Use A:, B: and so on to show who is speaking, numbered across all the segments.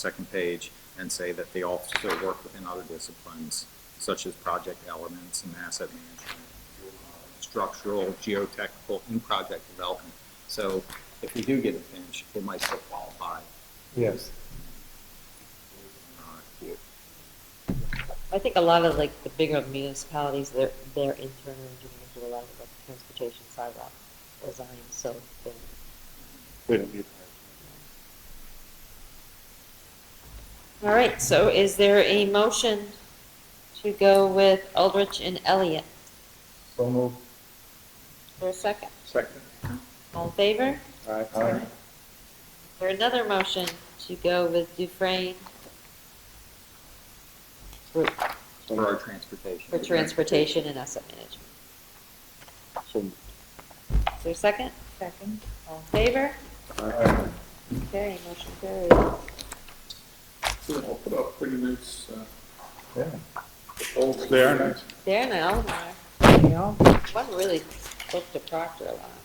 A: second page, and say that they also work within other disciplines, such as project elements and asset management, structural, geotechnical, and project development. So if we do get a finish, it might still qualify.
B: Yes.
A: Uh,
C: I think a lot of like the bigger municipalities, their, their internal engineers do a lot of like transportation sidewalk design, so they
B: We don't need
C: All right, so is there a motion to go with Eldridge and Elliott?
B: So moved.
C: For a second,
B: Second.
C: all in favor? Is
B: Aye. Aye.
C: there another motion to go with Dufrain for,
B: So
A: For our
B: moved.
A: transportation.
C: for transportation and asset management?
B: So moved.
C: Is there a second? Second. All in favor?
B: Aye.
C: Okay, motion carried.
D: I'll put up pretty nice, uh,
B: Yeah.
D: polls
B: There.
D: there.
C: There now, one really booked to Proctor a lot.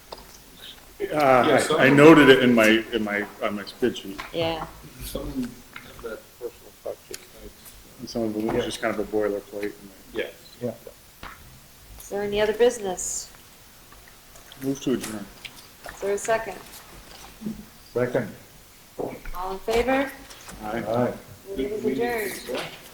D: Yeah,
B: Uh,
D: some-
B: I I noted it in my, in my, on my spreadsheet.
C: Yeah,
D: Some of that personal touch is nice.
B: And Some of it was just kind of a boilerplate. and
D: Yes.
B: I
C: is there any other business?
B: Move to adjourn.
C: Is there a second?
B: Second.
C: All in favor?
B: Aye.
C: Meeting is adjourned.
D: Yeah.